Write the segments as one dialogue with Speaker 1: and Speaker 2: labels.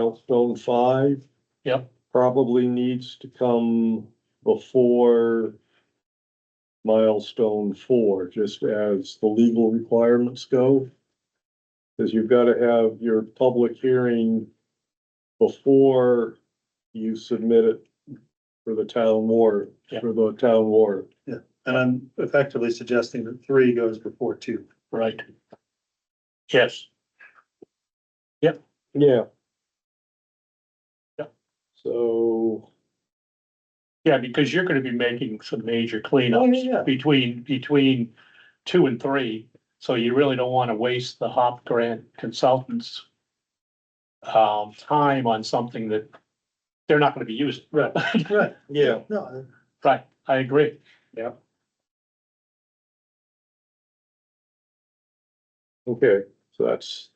Speaker 1: milestone five.
Speaker 2: Yep.
Speaker 1: Probably needs to come before milestone four, just as the legal requirements go. Cause you've gotta have your public hearing before you submit it for the town warrant,
Speaker 2: Yep.
Speaker 1: for the town warrant.
Speaker 3: And I'm effectively suggesting that three goes before two.
Speaker 2: right? Yes,
Speaker 1: Yeah.
Speaker 2: Yep.
Speaker 1: So,
Speaker 2: yeah, because you're gonna be making some major
Speaker 3: Oh, yeah, yeah.
Speaker 2: cleanups between, between two and three. So you really don't wanna waste the HOP grant consultants um, time on something that they're not gonna be using. Right.
Speaker 3: Right.
Speaker 1: yeah,
Speaker 3: No,
Speaker 2: Right, I agree.
Speaker 1: okay, so that's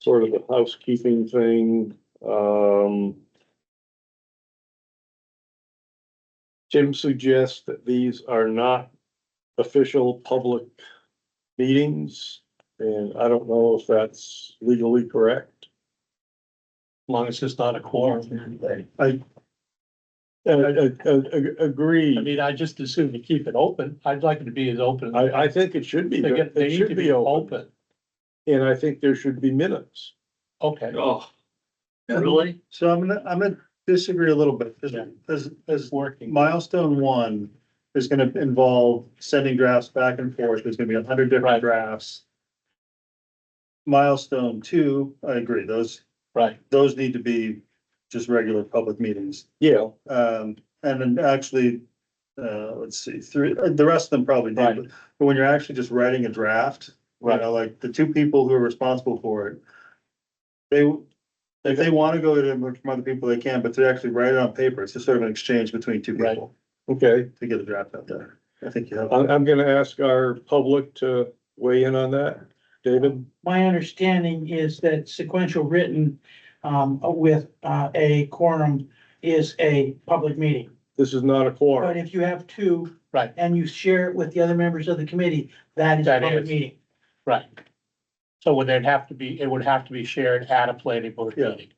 Speaker 1: sort of the housekeeping thing, um. Jim suggests that these are not official public meetings, and I don't know if that's legally correct.
Speaker 2: As long as it's not a quorum.
Speaker 1: Uh, uh, uh, ag-
Speaker 2: I
Speaker 1: agreed,
Speaker 2: mean, I just assume to keep it open. I'd like it to be as open.
Speaker 1: I, I think it should be,
Speaker 2: They get, they
Speaker 1: it
Speaker 2: need to
Speaker 1: should
Speaker 2: be
Speaker 1: open,
Speaker 2: open.
Speaker 1: and I think there should be minutes.
Speaker 2: Okay.
Speaker 4: Oh,
Speaker 2: Really?
Speaker 3: so I'm gonna, I'm gonna disagree a little bit, because,
Speaker 2: Yeah.
Speaker 3: as, as
Speaker 2: Working.
Speaker 3: milestone one is gonna involve sending drafts back and forth, there's gonna be a hundred
Speaker 2: Right.
Speaker 3: different drafts. Milestone two, I agree, those,
Speaker 2: Right,
Speaker 3: those need to be just regular public meetings.
Speaker 1: Yeah,
Speaker 3: Um, and then actually, uh, let's see, three, uh, the rest of them probably
Speaker 2: Right.
Speaker 3: did, but but when you're actually just writing a draft, you
Speaker 2: Right.
Speaker 3: know, like the two people who are responsible for it. They, if they wanna go to them from other people, they can, but to actually write it on paper, it's just sort of an exchange between two
Speaker 2: Right. Um,
Speaker 3: people
Speaker 1: okay.
Speaker 3: to get a draft out there. I think you have,
Speaker 1: I'm, I'm gonna ask our public to weigh in on that. David?
Speaker 5: My understanding is that sequential written um with uh a quorum is a public meeting.
Speaker 1: This is not a
Speaker 5: But
Speaker 1: quorum.
Speaker 5: if you have two.
Speaker 2: Right.
Speaker 5: And you share it with the other members of the committee, that is a
Speaker 2: That
Speaker 5: public
Speaker 2: is.
Speaker 5: meeting.
Speaker 2: right. So would it have to be, it would have to be shared at a planning board
Speaker 3: Yeah.
Speaker 2: meeting?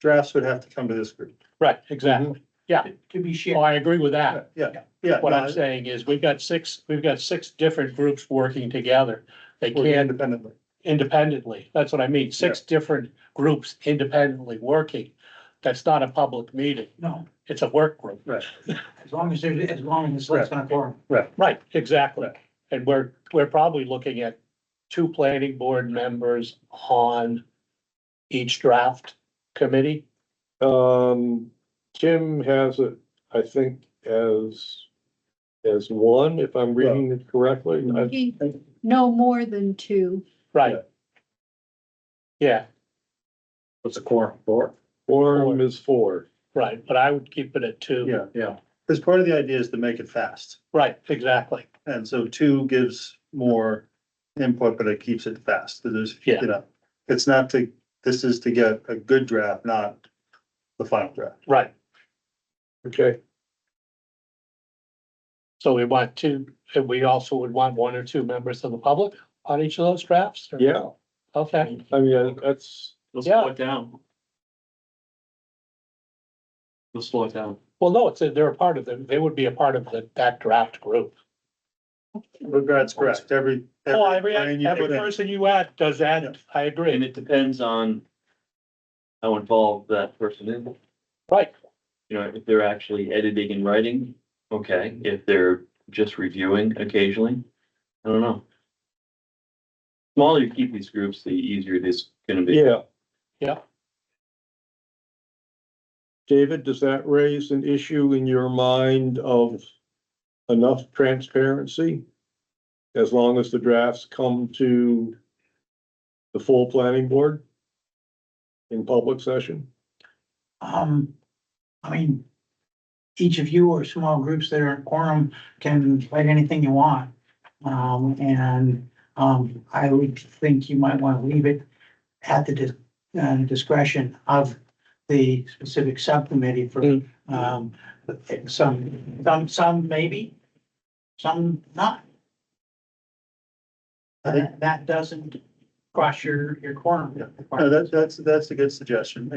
Speaker 3: drafts would have to come to this group.
Speaker 2: Right, exactly.
Speaker 5: To be
Speaker 2: Oh,
Speaker 5: shared.
Speaker 2: I agree with that.
Speaker 3: Yeah, yeah.
Speaker 2: What
Speaker 3: no,
Speaker 2: I'm saying is we've got six, we've got six different groups working together. They
Speaker 3: we're
Speaker 2: can
Speaker 3: Independently.
Speaker 2: independently. That's what I mean. Six different groups independently working. That's not a public meeting.
Speaker 5: No,
Speaker 2: It's a work group.
Speaker 5: as long as there's, as long as it's less than a quorum.
Speaker 2: Right, exactly. And we're, we're probably looking at two planning board members on each draft committee.
Speaker 1: Um, Tim has it, I think, as, as one, if I'm reading it correctly. I-
Speaker 6: He- No more than two.
Speaker 2: Right. Yeah,
Speaker 4: what's a quorum for?
Speaker 1: Quorum is four.
Speaker 2: right, but I would keep it at two.
Speaker 3: Yeah,
Speaker 4: Yeah.
Speaker 3: because part of the idea is to make it fast.
Speaker 2: Right, exactly.
Speaker 3: And so two gives more input, but it keeps it fast. There's,
Speaker 2: Yeah.
Speaker 3: you know, it's not to, this is to get a good draft, not the final draft.
Speaker 2: Right.
Speaker 1: Okay,
Speaker 2: So we want two, and we also would want one or two members of the public on each of those drafts? or-
Speaker 1: yeah,
Speaker 2: Okay,
Speaker 1: I mean, that's,
Speaker 4: They'll
Speaker 2: Yeah.
Speaker 4: slow it down. They'll slow it down.
Speaker 2: well, no, it's, a- they're a part of the, they would be a part of the, that draft group.
Speaker 3: Regards correct, every.
Speaker 2: Oh, every,
Speaker 3: line you
Speaker 2: every
Speaker 3: put in.
Speaker 2: person you add does add, I
Speaker 4: And
Speaker 2: agree,
Speaker 4: it depends on how involved that person is.
Speaker 2: right,
Speaker 4: You know, if they're actually editing and writing, okay. If they're just reviewing occasionally, I don't know. Smaller you keep these groups, the easier it is gonna be.
Speaker 1: yeah.
Speaker 2: Yeah.
Speaker 1: David, does that raise an issue in your mind of enough transparency? As long as the drafts come to the full planning board in public session?
Speaker 5: Um, I mean, each of you or small groups that are in quorum can write anything you want. Um, and, um, I would think you might want to leave it at the dis- uh, discretion of the specific subcommittee for,
Speaker 2: Mm.
Speaker 5: um, some, some, some maybe, some not.
Speaker 3: I think-
Speaker 5: That, that doesn't cross your, your quorum.
Speaker 3: No, that's, that's, that's a good suggestion.